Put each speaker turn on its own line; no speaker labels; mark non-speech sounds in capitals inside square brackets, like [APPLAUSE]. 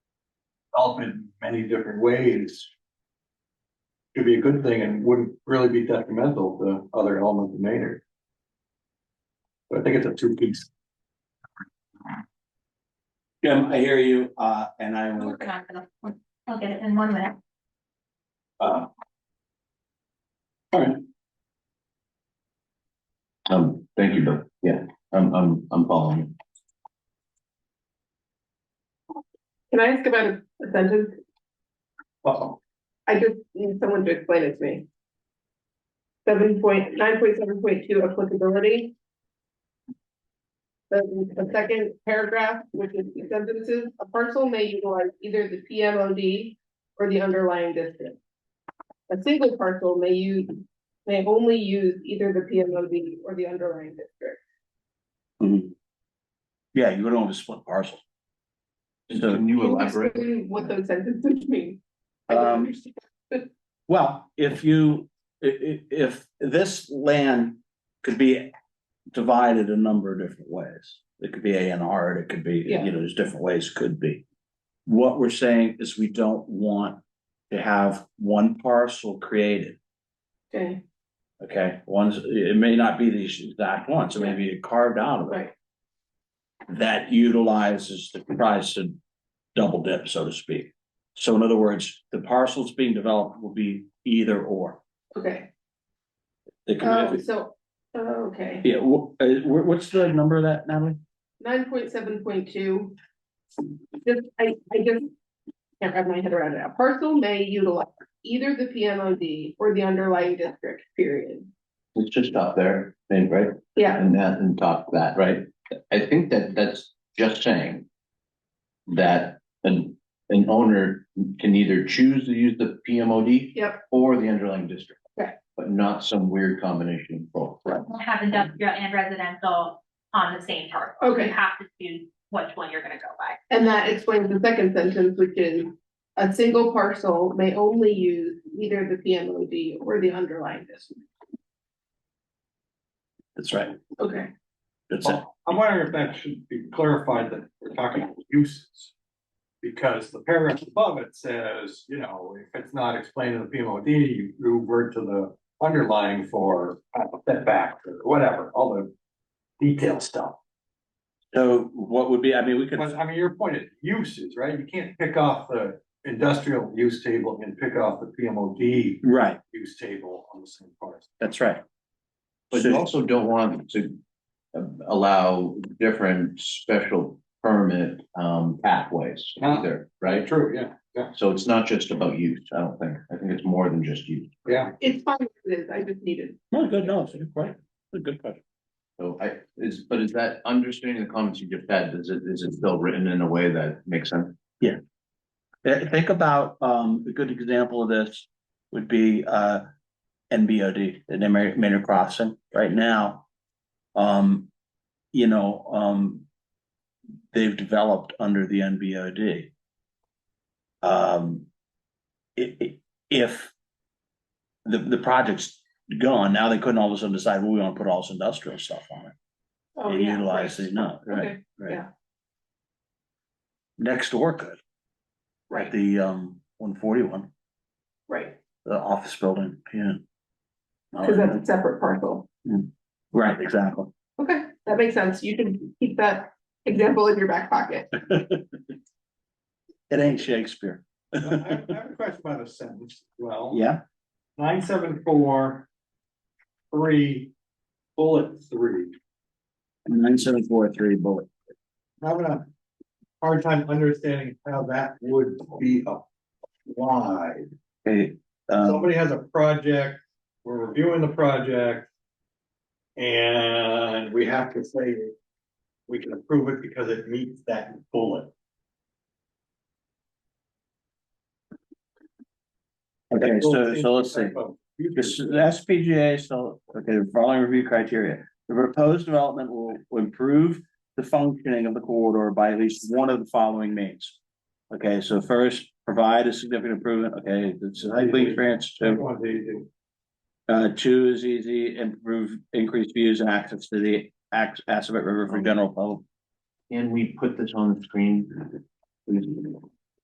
help in many different ways. Could be a good thing and wouldn't really be detrimental to other elements of Maynard. So I think it's a two piece.
Jim, I hear you, uh, and I
I'm
will,
working on it. I'll get it in one minute.
uh,
Um, thank you, Bill. Yeah, I'm, I'm, I'm following. you.
Can I ask about a a sentence?
Uh-oh.
I just need someone to explain it to me. Seven point, nine point seven point two applicability. The, the second paragraph, which is the sentences, a parcel may utilize either the PMOD or the underlying district. A single parcel may use, may only use either the PMOD or the underlying district.
mhm. yeah, you don't have a split parcel. So,
Can you
Can
elaborate?
explain What those sentences mean? I don't
Um,
understand.
well, if you, i- i- if this land could be divided a number of different ways. It could be A and R, it could be, you
Yeah.
know, there's different ways it could be. What we're saying is we don't want to have one parcel created.
Okay,
Okay, ones, it may not be these exact ones, it may be carved out of it.
right,
that utilizes the price to double dip, so to speak. So in other words, the parcels being developed will be either or.
okay,
They can-
oh, so, oh, okay.
Yeah, wh- uh, wh- what's the number of that, Natalie?
nine point seven point two. Just, I, I just can't wrap my head around it. A parcel may utilize either the PMOD or the underlying district, period.
Let's just stop there, then, right?
Yeah,
And that, and talk that, right? I think that that's just saying that an, an owner can either choose to use the PMOD
Yep.
or the underlying district.
Right.
But not some weird combination of both.
Have industrial and residential on the same parcel.
Okay.
You have to choose which one you're gonna go by.
and that explains the second sentence, which is a single parcel may only use either the PMOD or the underlying district.
That's right.
Okay,
That's it.
I'm wondering if that should be clarified that we're talking about uses. Because the paragraph above it says, you know, if it's not explained in the PMOD, you revert to the underlying for uh, setback or whatever, all the detailed stuff.
So what would be, I mean, we could,
But I mean, your point is uses, right? You can't pick off the industrial use table and pick off the PMOD
right,
use table on the same parts.
that's right.
But you
So-
also don't want to um, allow different special permit um pathways
No.
either, right?
True, yeah,
So it's not just about use, I don't think. I think it's more than just use.
yeah.
it's fine, as it is, I just needed,
No, good, no, it's a good question. It's a good question.
So I, is, but is that understanding the comments you just had, is it, is it still written in a way that makes sense?
Uh, Think about, um, a good example of this would be, uh, NBOD, the Maynard Maynard Crossing, right now. Um, you know, um, they've developed under the NBOD. Um, i- i- if the, the project's gone, now they couldn't all of a sudden decide, well, we want to put all this industrial stuff on it.
oh,
They
yeah.
utilize it, no, right,
Okay,
right.
yeah.
Next door could,
Right,
the, um, one forty-one.
right,
the office building, yeah.
because that's a separate parcel.
Right, exactly.
Okay, that makes sense. You can keep that example in your back pocket.
[LAUGHS] It ain't Shakespeare.
I I- I have a question about a sentence, as well.
Yeah,
nine seven four three bullet three.
nine seven four three bullet.
I'm Having a hard time understanding how that would be applied.
Okay, um,
Somebody has a project, we're reviewing the project. And we have to say we can approve it because it meets that bullet.
okay, so, so let's see. This is the SPGA, so, okay, the following review criteria. The proposed development will will improve the functioning of the corridor by at least one of the following means. Okay, so first, provide a significant improvement, okay, it's a highly experienced, so
Everyone's easy.
Uh, two is easy, improve, increase views and access to the Ax- Assabet River for general public.
Can we put this on the screen? please?